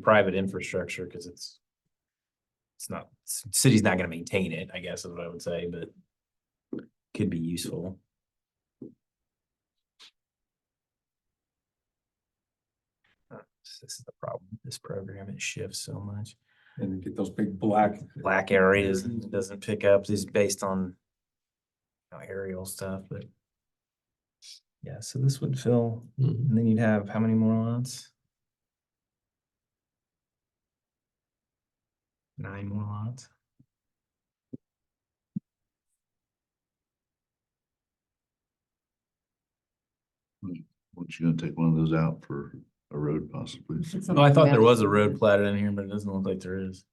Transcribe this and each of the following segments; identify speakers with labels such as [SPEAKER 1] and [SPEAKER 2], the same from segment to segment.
[SPEAKER 1] private infrastructure, because it's. It's not, c- city's not gonna maintain it, I guess is what I would say, but could be useful. Uh, This is the problem, with this program, it shifts so much.
[SPEAKER 2] and get those big black.
[SPEAKER 1] Black areas, and it doesn't pick up, is based on. you know, Aerial stuff, but. Yeah, so this would fill, and then you'd have how many more lots? Nine more lots.
[SPEAKER 3] Weren't you gonna take one of those out for a road possibly?
[SPEAKER 1] No, Oh, I thought there was a road platted in here, but it doesn't look like there is.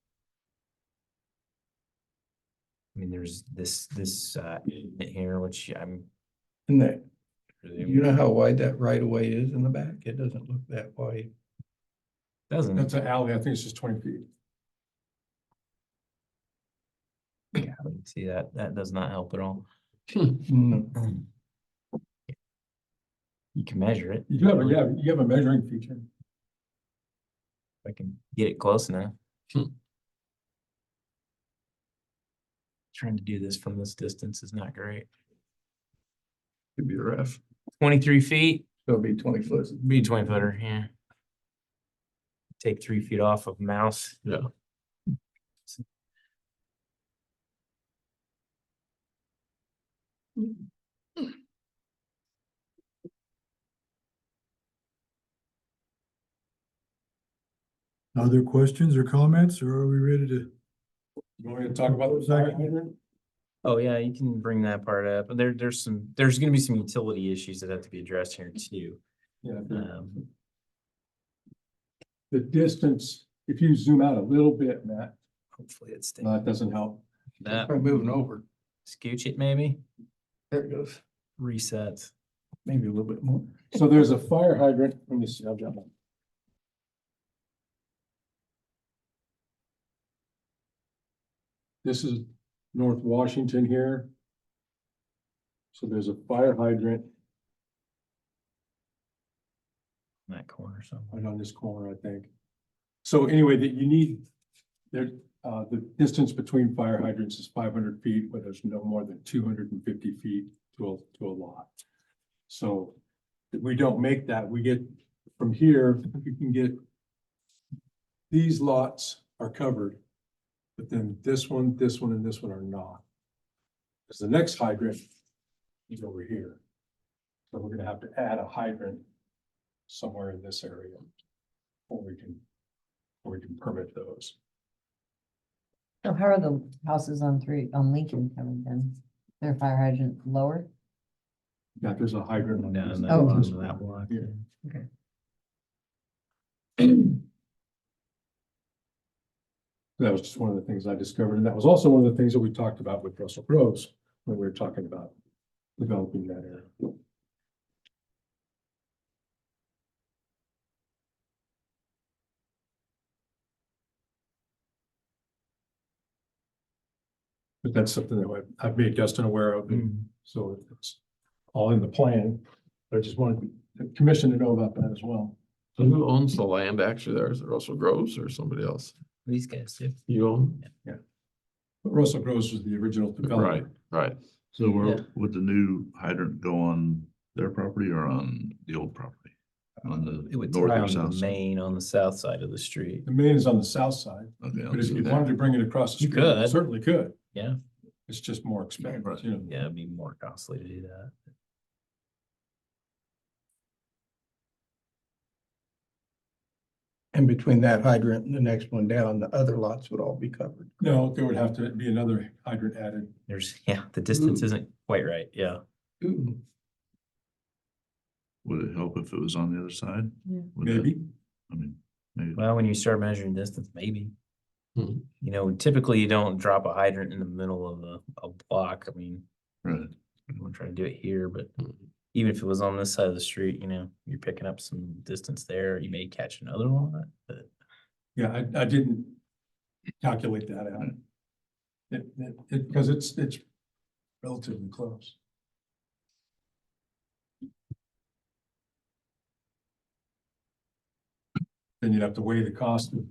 [SPEAKER 1] I mean, there's this, this, uh, in here, which I'm.
[SPEAKER 4] And that, you
[SPEAKER 1] presuming
[SPEAKER 4] know how wide that right of way is in the back? It doesn't look that wide.
[SPEAKER 1] Doesn't,
[SPEAKER 2] That's an alley. I think it's just twenty feet.
[SPEAKER 1] yeah, I can see that, that does not help at all.
[SPEAKER 4] No.
[SPEAKER 1] You can measure it,
[SPEAKER 2] You do have, a- yeah, you have a measuring feature.
[SPEAKER 1] if I can get it close enough. Trying to do this from this distance is not great.
[SPEAKER 3] Could be rough.
[SPEAKER 1] Twenty-three feet,
[SPEAKER 4] It'll be twenty foot.
[SPEAKER 1] be a twenty footer, yeah. Take three feet off of mouse.
[SPEAKER 3] Yeah.
[SPEAKER 5] Other questions or comments, or are we ready to?
[SPEAKER 2] You want me to talk about the fire hydrant?
[SPEAKER 1] Oh, yeah, you can bring that part up. There, there's some, there's gonna be some utility issues that have to be addressed here too.
[SPEAKER 2] Yeah,
[SPEAKER 3] Uh.
[SPEAKER 2] the-
[SPEAKER 1] Um,
[SPEAKER 2] the distance, if you zoom out a little bit, Matt,
[SPEAKER 1] hopefully it stays.
[SPEAKER 2] no, that doesn't help.
[SPEAKER 1] That,
[SPEAKER 4] Try moving over.
[SPEAKER 1] scooch it maybe,
[SPEAKER 4] There it goes.
[SPEAKER 1] reset.
[SPEAKER 4] Maybe a little bit more.
[SPEAKER 2] So there's a fire hydrant, let me see, I've got one. This is North Washington here. So there's a fire hydrant
[SPEAKER 1] in That corner somewhere.
[SPEAKER 2] right on this corner, I think. So anyway, that you need, there, uh, the distance between fire hydrants is five hundred feet, but there's no more than two hundred and fifty feet to a, to a lot. So if we don't make that, we get, from here, you can get, these lots are covered, but then this one, this one, and this one are not. Because the next hydrant is over here. So we're gonna have to add a hydrant somewhere in this area. Or we can, or we can permit those.
[SPEAKER 6] So how are the houses on three, on Lincoln coming then? Their fire hydrant lower?
[SPEAKER 2] Yeah, there's a hydrant. on
[SPEAKER 1] Down
[SPEAKER 2] this.
[SPEAKER 1] that
[SPEAKER 6] Oh.
[SPEAKER 1] block, that block.
[SPEAKER 2] Yeah. That was just one of the things I discovered, and that was also one of the things that we talked about with Russell Groves when we were talking about developing that area. But that's something that I- I've made Dustin aware of, and
[SPEAKER 1] Mm.
[SPEAKER 2] so it's all in the plan. I just wanted the commission to know about that as well.
[SPEAKER 7] So Who owns the land actually there? Is it Russell Groves or somebody else?
[SPEAKER 1] These guys do.
[SPEAKER 7] You own?
[SPEAKER 2] But Russell Groves was the original
[SPEAKER 7] Right,
[SPEAKER 2] developer.
[SPEAKER 7] right.
[SPEAKER 3] So
[SPEAKER 1] Yeah.
[SPEAKER 3] where would the new hydrant go on their property or on the old property? On
[SPEAKER 1] It
[SPEAKER 3] the
[SPEAKER 1] would
[SPEAKER 3] north
[SPEAKER 1] tie
[SPEAKER 3] or
[SPEAKER 1] on the
[SPEAKER 3] south? side?
[SPEAKER 1] main on the south side of the street.
[SPEAKER 2] The main is on the south side,
[SPEAKER 3] Okay,
[SPEAKER 2] but
[SPEAKER 3] I'll
[SPEAKER 2] if
[SPEAKER 3] see
[SPEAKER 2] you
[SPEAKER 3] that.
[SPEAKER 2] wanted to bring it across the
[SPEAKER 1] You
[SPEAKER 2] street,
[SPEAKER 1] could.
[SPEAKER 2] certainly could.
[SPEAKER 1] Yeah.
[SPEAKER 2] It's just more expensive,
[SPEAKER 3] Right.
[SPEAKER 2] you know.
[SPEAKER 1] Yeah, it'd be more costly to do that.
[SPEAKER 4] And between that hydrant and the next one down, the other lots would all be covered.
[SPEAKER 2] No, there would have to be another hydrant added.
[SPEAKER 1] There's, yeah, the distance isn't quite right, yeah.
[SPEAKER 4] Ooh,
[SPEAKER 3] Would it help if it was on the other side?
[SPEAKER 6] Yeah.
[SPEAKER 3] Would that-
[SPEAKER 2] Maybe,
[SPEAKER 3] I mean, maybe.
[SPEAKER 1] Well, when you start measuring distance, maybe.
[SPEAKER 3] Hmm.
[SPEAKER 7] Mhm.
[SPEAKER 1] You know, typically you don't drop a hydrant in the middle of a, a block. I mean,
[SPEAKER 3] Right. Hmm.
[SPEAKER 1] I'm gonna try to do it here, but
[SPEAKER 7] Mhm.
[SPEAKER 1] even if it was on this side of the street, you know, you're picking up some distance there. You may catch another one, but
[SPEAKER 2] yeah, I, I didn't calculate that out.
[SPEAKER 1] Mm.
[SPEAKER 2] It, it, it, because it's, it's relatively close. then you'd have to weigh the cost of